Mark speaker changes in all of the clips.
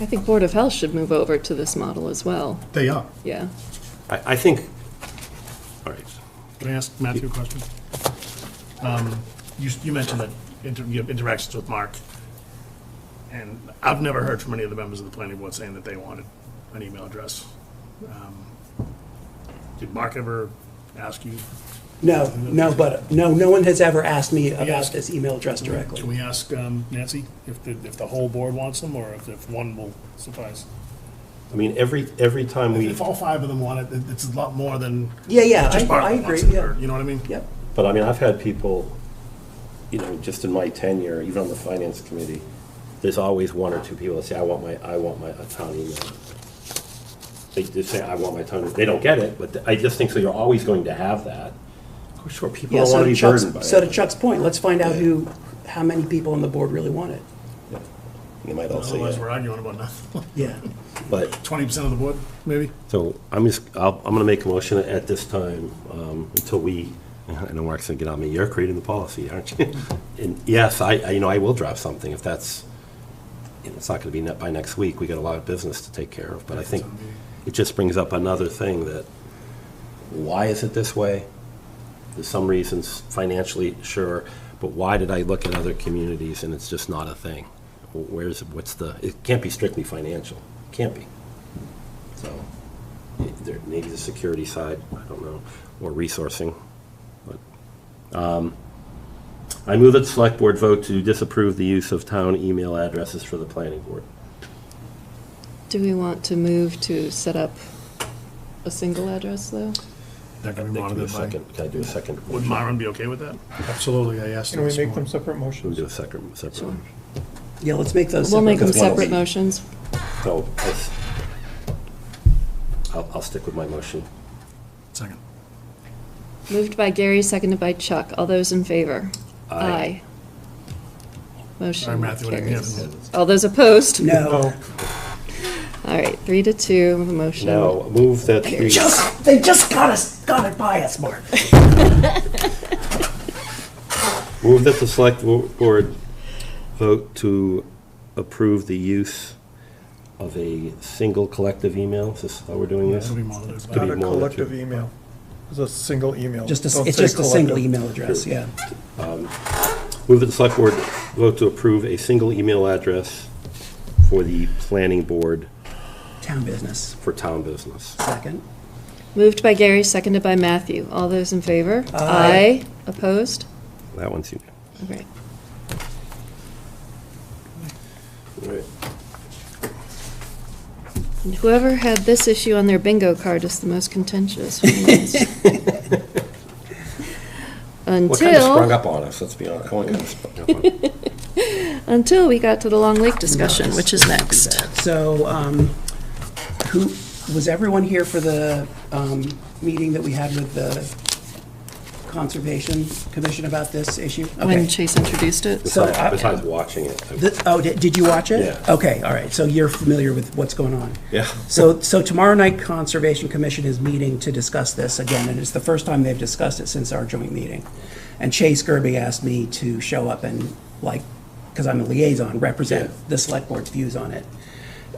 Speaker 1: I think Board of Health should move over to this model as well,
Speaker 2: They are.
Speaker 1: yeah.
Speaker 3: I, I think, all right,
Speaker 2: Can I ask Matthew a question? Um, You, you mentioned that inter- you have interactions with Mark, and I've never heard from any of the members of the planning board saying that they wanted an email address. Um, Did Mark ever ask you,
Speaker 4: No, no, but, no, no one has ever asked me about
Speaker 2: asked-
Speaker 4: this email address
Speaker 2: can
Speaker 4: directly.
Speaker 2: we ask um, Nancy if the, if the whole board wants them, or if- if one will suffice?
Speaker 3: I mean, every, every time we,
Speaker 2: If all five of them want it, it- it's a lot more than
Speaker 4: Yeah, yeah, I,
Speaker 2: just Mark
Speaker 4: I
Speaker 2: that
Speaker 4: agree,
Speaker 2: wants it,
Speaker 4: yeah,
Speaker 2: or- You know what I mean?
Speaker 4: yep.
Speaker 3: but I mean, I've had people, you know, just in my tenure, even on the finance committee, there's always one or two people that say, I want my, I want my a town email. They just say, I want my town, they don't get it, but I just think, so you're always going to have that. Sure, people
Speaker 4: Yeah,
Speaker 3: don't want
Speaker 4: so
Speaker 3: to
Speaker 4: to
Speaker 3: be burdened by
Speaker 4: Chuck's, so to
Speaker 3: it.
Speaker 4: Chuck's point, let's find out who, how many people on the board really want it.
Speaker 3: They might all say,
Speaker 2: Otherwise,
Speaker 3: yeah,
Speaker 2: we're arguing about nothing.
Speaker 4: Yeah,
Speaker 3: but.
Speaker 2: Twenty percent of the board, maybe?
Speaker 3: So I'm just, I'll, I'm gonna make a motion at this time, um, until we, I know Mark's gonna get on me, you're creating the policy, aren't you? And yes, I, I, you know, I will draft something if that's, it's not gonna be net by next week, we got a lot of business to take care of, but I think it just brings up another thing that, why is it this way? There's some reasons financially, sure, but why did I look at other communities and it's just not a thing? Where's, what's the, it can't be strictly financial, can't be. So, it- there, maybe the security side, I don't know, or resourcing. But, um, I move that the select board vote to disapprove the use of town email addresses for the planning board.
Speaker 1: Do we want to move to set up a single address, though?
Speaker 2: That
Speaker 3: Can I
Speaker 2: can be
Speaker 3: do a
Speaker 2: monitored by.
Speaker 3: second, can I do a second?
Speaker 2: Would Myron be okay with that? Absolutely, I asked
Speaker 5: Can we make them separate
Speaker 3: We'll
Speaker 5: motions?
Speaker 3: do a second, separate.
Speaker 1: Sure.
Speaker 3: one.
Speaker 4: yeah, let's make those.
Speaker 1: We'll make them
Speaker 4: separate.
Speaker 3: Because one of
Speaker 1: separate
Speaker 3: them-
Speaker 1: motions.
Speaker 3: So, let's- I'll, I'll stick with my motion.
Speaker 2: Second.
Speaker 1: Moved by Gary, seconded by Chuck. All those in favor?
Speaker 3: Aye.
Speaker 1: Motion
Speaker 2: Sorry, Matthew, I didn't hear
Speaker 1: carries.
Speaker 2: them.
Speaker 1: All those opposed?
Speaker 4: No,
Speaker 1: All right, three to two, the motion.
Speaker 3: Now, move that we,
Speaker 4: just, they just got us, got it by us, Mark.
Speaker 3: move that the select wo- board vote to approve the use of a single collective email, is this how we're doing this?
Speaker 2: It'll be monitored
Speaker 3: Could
Speaker 2: by-
Speaker 5: Not
Speaker 3: be more
Speaker 5: a
Speaker 3: than
Speaker 5: collective
Speaker 3: two.
Speaker 5: email. It's a single email.
Speaker 4: Just a, s-
Speaker 5: Don't
Speaker 4: it's
Speaker 5: say
Speaker 4: just a single
Speaker 5: collective.
Speaker 4: email address, yeah.
Speaker 3: Move that the select board vote to approve a single email address for the planning board
Speaker 4: Town business,
Speaker 3: for town business.
Speaker 4: second.
Speaker 1: Moved by Gary, seconded by Matthew. All those in favor? Aye. Opposed?
Speaker 3: That one's you.
Speaker 1: Okay. And Whoever had this issue on their bingo card is the most contentious.
Speaker 3: What kind of sprung
Speaker 1: Until,
Speaker 3: up on us, let's be honest. What kind of sprung up on us?
Speaker 1: until we got to the Long Lake discussion, which is next.
Speaker 4: So, um, who, was everyone here for the, um, meeting that we had with the Conservation Commission about this issue?
Speaker 1: When
Speaker 4: Okay.
Speaker 1: Chase introduced it.
Speaker 4: So, I-
Speaker 3: Besides besides watching it. I-
Speaker 4: Th- Oh, did did you watch it?
Speaker 3: Yeah.
Speaker 4: Okay, all right, so you're familiar with what's going on?
Speaker 3: Yeah.
Speaker 4: So, so tomorrow night, Conservation Commission is meeting to discuss this again, and it's the first time they've discussed it since our joint meeting. And Chase Gerby asked me to show up and, like, because I'm a liaison, represent
Speaker 3: Yeah.
Speaker 4: the select board's views on it.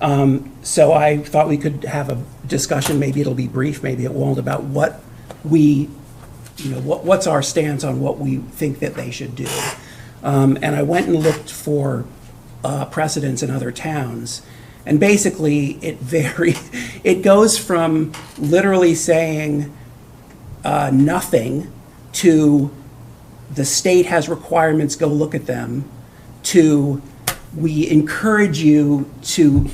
Speaker 4: Um, So I thought we could have a discussion, maybe it'll be brief, maybe it won't, about what we, you know, what, what's our stance on what we think that they should do. Um, And I went and looked for uh, precedents in other towns. And basically, it varies, it goes from literally saying uh, nothing to the state has requirements, go look at them, to we encourage you to,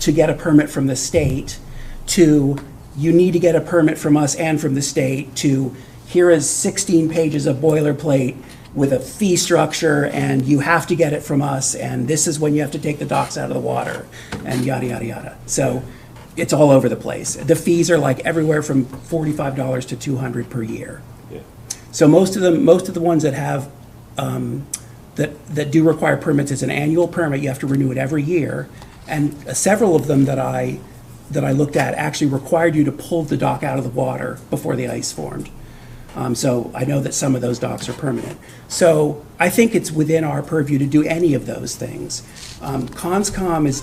Speaker 4: to get a permit from the state, to you need to get a permit from us and from the state, to here is 16 pages of boilerplate with a fee structure, and you have to get it from us, and this is when you have to take the docks out of the water, and yada, yada, yada. So it's all over the place. The fees are like everywhere from $45 to 200 per year.
Speaker 3: yeah.
Speaker 4: So most of them, most of the ones that have, um, that, that do require permits, it's an annual permit, you have to renew it every year. And several of them that I, that I looked at actually required you to pull the dock out of the water before the ice formed. Um, so I know that some of those docks are permanent. So I think it's within our purview to do any of those things. Um, Conscom is